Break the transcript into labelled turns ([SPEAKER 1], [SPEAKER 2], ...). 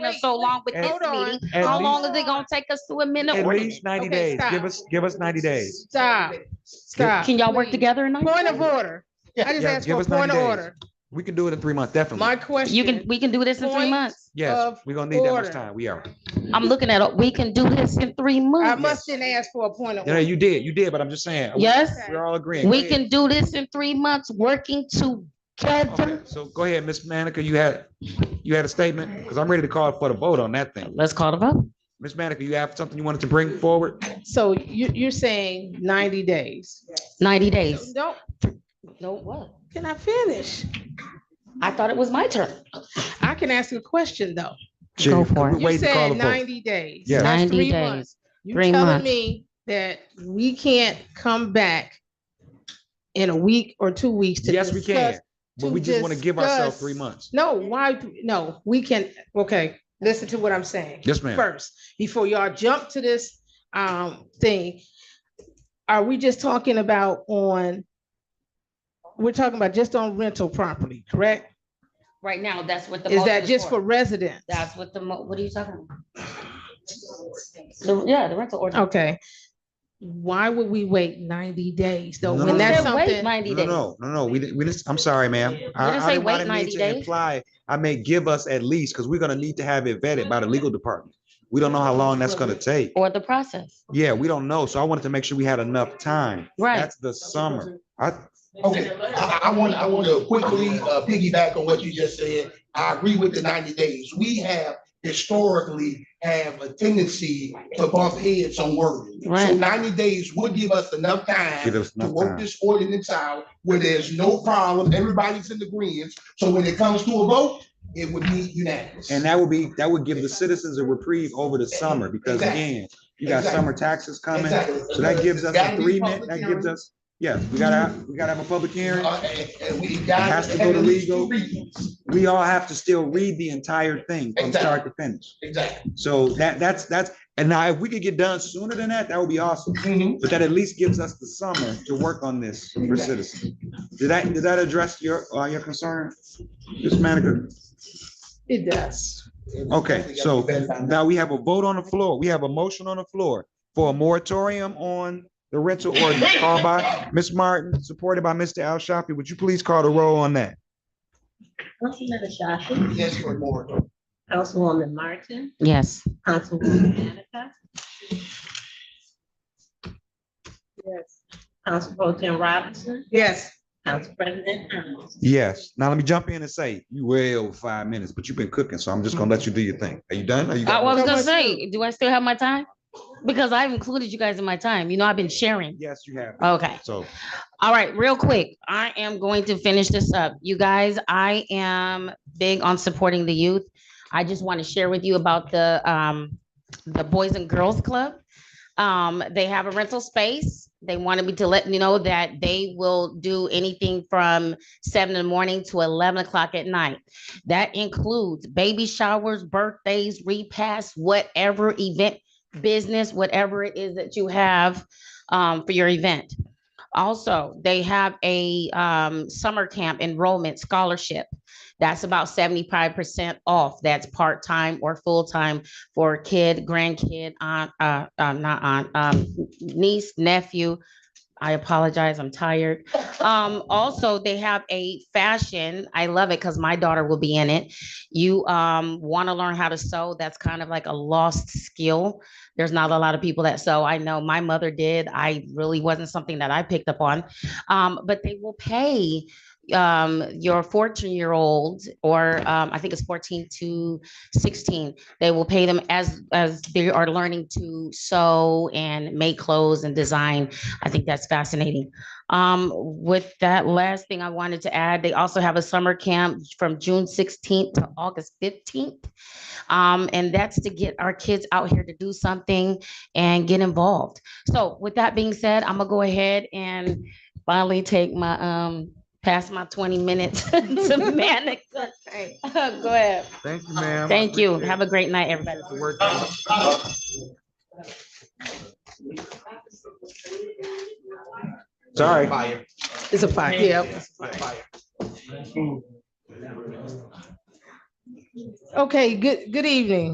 [SPEAKER 1] us so long with
[SPEAKER 2] At-
[SPEAKER 1] this
[SPEAKER 2] hold on.
[SPEAKER 1] meeting.
[SPEAKER 2] At
[SPEAKER 1] How long is
[SPEAKER 2] least-
[SPEAKER 1] it gonna take us to amend the
[SPEAKER 2] At
[SPEAKER 1] ordinance?
[SPEAKER 2] least ninety
[SPEAKER 1] Okay,
[SPEAKER 2] days.
[SPEAKER 1] stop.
[SPEAKER 2] Give us, give us ninety days.
[SPEAKER 1] Stop, stop.
[SPEAKER 3] Can y'all work together tonight?
[SPEAKER 1] Point of order.
[SPEAKER 2] Yeah,
[SPEAKER 1] I just
[SPEAKER 2] yeah,
[SPEAKER 1] asked
[SPEAKER 2] give
[SPEAKER 1] for a
[SPEAKER 2] us 90
[SPEAKER 1] point of
[SPEAKER 2] days.
[SPEAKER 1] order.
[SPEAKER 2] We can do it in three months, definitely.
[SPEAKER 1] My question.
[SPEAKER 3] You can, we can do this in three
[SPEAKER 1] Point
[SPEAKER 3] months.
[SPEAKER 2] Yes,
[SPEAKER 1] of
[SPEAKER 2] we're gonna need that much
[SPEAKER 1] order.
[SPEAKER 2] time. We are.
[SPEAKER 3] I'm looking at, it. we can do this in three
[SPEAKER 1] I
[SPEAKER 3] months.
[SPEAKER 1] must didn't ask for a point of
[SPEAKER 2] No, no,
[SPEAKER 1] order.
[SPEAKER 2] you did, you did, but I'm just saying. we-
[SPEAKER 3] Yes,
[SPEAKER 2] We're all agreeing.
[SPEAKER 3] we
[SPEAKER 2] Go
[SPEAKER 3] can do this in three months, working
[SPEAKER 2] ahead.
[SPEAKER 3] together.
[SPEAKER 2] Okay, So go ahead, Ms. Manica, you had, you had a statement? Because I'm ready to call for the vote on that thing.
[SPEAKER 3] Let's call the vote.
[SPEAKER 2] Ms. Manica, you have something you wanted to bring forward?
[SPEAKER 1] So you, you're saying ninety days?
[SPEAKER 3] Ninety days.
[SPEAKER 1] Don't,
[SPEAKER 3] No, what?
[SPEAKER 1] can I finish?
[SPEAKER 3] I thought it was my turn.
[SPEAKER 1] I can ask you a question, though.
[SPEAKER 3] Go for it.
[SPEAKER 2] We're
[SPEAKER 1] You
[SPEAKER 2] waiting to call
[SPEAKER 1] said
[SPEAKER 2] the vote.
[SPEAKER 1] ninety days.
[SPEAKER 2] Yeah.
[SPEAKER 1] That's
[SPEAKER 3] 90
[SPEAKER 1] three
[SPEAKER 3] days.
[SPEAKER 1] months. You
[SPEAKER 3] Three
[SPEAKER 1] telling
[SPEAKER 3] months.
[SPEAKER 1] me that we can't come back in a week or two weeks to
[SPEAKER 2] Yes, we can,
[SPEAKER 1] discuss?
[SPEAKER 2] but
[SPEAKER 1] to
[SPEAKER 2] we just want to give ourselves
[SPEAKER 1] discuss-
[SPEAKER 2] three months.
[SPEAKER 1] No, why, no, we can, okay, listen to what I'm saying
[SPEAKER 2] Yes, ma'am.
[SPEAKER 1] first, before y'all jump to this, um, thing. Are we just talking about on, we're talking about just on rental property, correct?
[SPEAKER 3] Right now, that's what the.
[SPEAKER 1] Is
[SPEAKER 3] motion
[SPEAKER 1] that just for residents?
[SPEAKER 3] That's what the, mo- what are you talking about? The- Yeah, the rental ordinance.
[SPEAKER 1] Okay. Why would we wait ninety days though?
[SPEAKER 2] No,
[SPEAKER 1] When
[SPEAKER 2] no,
[SPEAKER 1] that's
[SPEAKER 3] Said wait
[SPEAKER 1] something,
[SPEAKER 3] Ninety
[SPEAKER 2] No,
[SPEAKER 3] days.
[SPEAKER 2] no, no, no, we didn't, we just, I'm sorry, ma'am. I-
[SPEAKER 3] didn't
[SPEAKER 2] I
[SPEAKER 3] say
[SPEAKER 2] didn't- I
[SPEAKER 3] wait
[SPEAKER 2] didn't mean
[SPEAKER 3] 90
[SPEAKER 2] to
[SPEAKER 3] days.
[SPEAKER 2] imply- I mean, give us at least, because we're gonna need to have it vetted by the legal department. We don't know how long that's gonna take.
[SPEAKER 3] Or the process.
[SPEAKER 2] Yeah, we don't know, so I wanted to make sure we had enough time.
[SPEAKER 3] Right.
[SPEAKER 2] That's the summer. I,
[SPEAKER 4] Okay, I, I want, I want to quickly uh, piggyback on what you just said. I agree with the ninety days. We have historically have a tendency to bump heads on wording. So
[SPEAKER 3] Right.
[SPEAKER 4] ninety days would give us enough
[SPEAKER 2] give
[SPEAKER 4] time
[SPEAKER 2] us
[SPEAKER 4] to
[SPEAKER 2] enough
[SPEAKER 4] work
[SPEAKER 2] time.
[SPEAKER 4] this ordinance out where there's no problem, everybody's in agreement. So when it comes to a vote, it would be unanimous.
[SPEAKER 2] And that would be, that would give the citizens a reprieve over the summer, because
[SPEAKER 4] Exactly.
[SPEAKER 2] again, you got
[SPEAKER 4] Exactly.
[SPEAKER 2] summer taxes coming.
[SPEAKER 4] Exactly.
[SPEAKER 2] um, So that gives us a
[SPEAKER 4] Gotta be
[SPEAKER 2] three
[SPEAKER 4] public
[SPEAKER 2] minute, that gives
[SPEAKER 4] hearing.
[SPEAKER 2] us, yeah, we gotta, have- we gotta have a public hearing.
[SPEAKER 4] Uh, and- and we
[SPEAKER 2] has
[SPEAKER 4] got.
[SPEAKER 2] to go to
[SPEAKER 4] at least
[SPEAKER 2] legal.
[SPEAKER 4] two readings.
[SPEAKER 2] We all have to still read the entire thing from start to finish.
[SPEAKER 4] Exactly.
[SPEAKER 2] So that, that's, that's, and now if we could get done sooner than that, that would be awesome.
[SPEAKER 4] Mhm.
[SPEAKER 2] But that at least gives us the summer to work on this for citizens. Did that, did that address your, uh, your concern? Ms. Manica?
[SPEAKER 1] it does.
[SPEAKER 2] Okay, so now we have a vote on the floor. We have a motion on the floor for a moratorium on the rental ordinance called by Ms. Martin, supported by Mr. Al Shafi. Would you please call the roll on that?
[SPEAKER 5] Councilman Ashafi,
[SPEAKER 4] Yes, for more.
[SPEAKER 5] Councilwoman Martin,
[SPEAKER 3] Yes.
[SPEAKER 5] Councilwoman Manica,
[SPEAKER 1] Yes.
[SPEAKER 5] Council Pro Tim Robinson,
[SPEAKER 1] Yes,
[SPEAKER 5] Council President Towns.
[SPEAKER 2] Yes. Now let me jump in and say, you well over five minutes, but you've been cooking, so I'm just gonna let you do your thing. Are you done? Are you?
[SPEAKER 3] I
[SPEAKER 2] got
[SPEAKER 3] was
[SPEAKER 2] more?
[SPEAKER 3] gonna
[SPEAKER 1] much
[SPEAKER 3] say, do I still have my time? Because I've included you guys in my time. You know, I've been sharing.
[SPEAKER 2] Yes, you have.
[SPEAKER 3] Okay.
[SPEAKER 2] So
[SPEAKER 3] All right, real quick. I am going to finish this up. You guys, I am big on supporting the youth. I just want to share with you about the um the Boys and Girls Club. Um, they have a rental space. They wanted me to let you know that they will do anything from seven in the morning to eleven o'clock at night. That includes baby showers, birthdays, repasts, whatever event, business, whatever it is that you have um for your event. Also, they have a um, summer camp enrollment scholarship. That's about seventy-five percent off. That's part-time or full-time for a kid, grandkid, aunt, uh, um, not aunt, um, niece, nephew. I apologize, I'm tired. Um, also, they have a fashion. I love it because my daughter will be in it. You um want to learn how to sew. That's kind of like a lost skill there's not a lot of people that sew. I know my mother did. I really wasn't something that I picked up on. Um, but they will pay um your 14 year old or um i think it's 14 to 16 they will pay them as as they are learning to sew and make clothes and design i think that's fascinating um with that last thing i wanted to add they also have a summer camp from june 16th to august 15th um, and that's to get our kids out here to do something and get involved. So with that being said, I'm gonna go ahead and finally take my, um, past my twenty minutes to Manica. Go ahead.
[SPEAKER 2] thank you, ma'am.
[SPEAKER 3] Thank you. Have a great night, everybody.
[SPEAKER 2] Sorry.
[SPEAKER 4] Fire.
[SPEAKER 1] it's a fire. Yeah.
[SPEAKER 4] Fire.
[SPEAKER 1] Okay, good, good evening.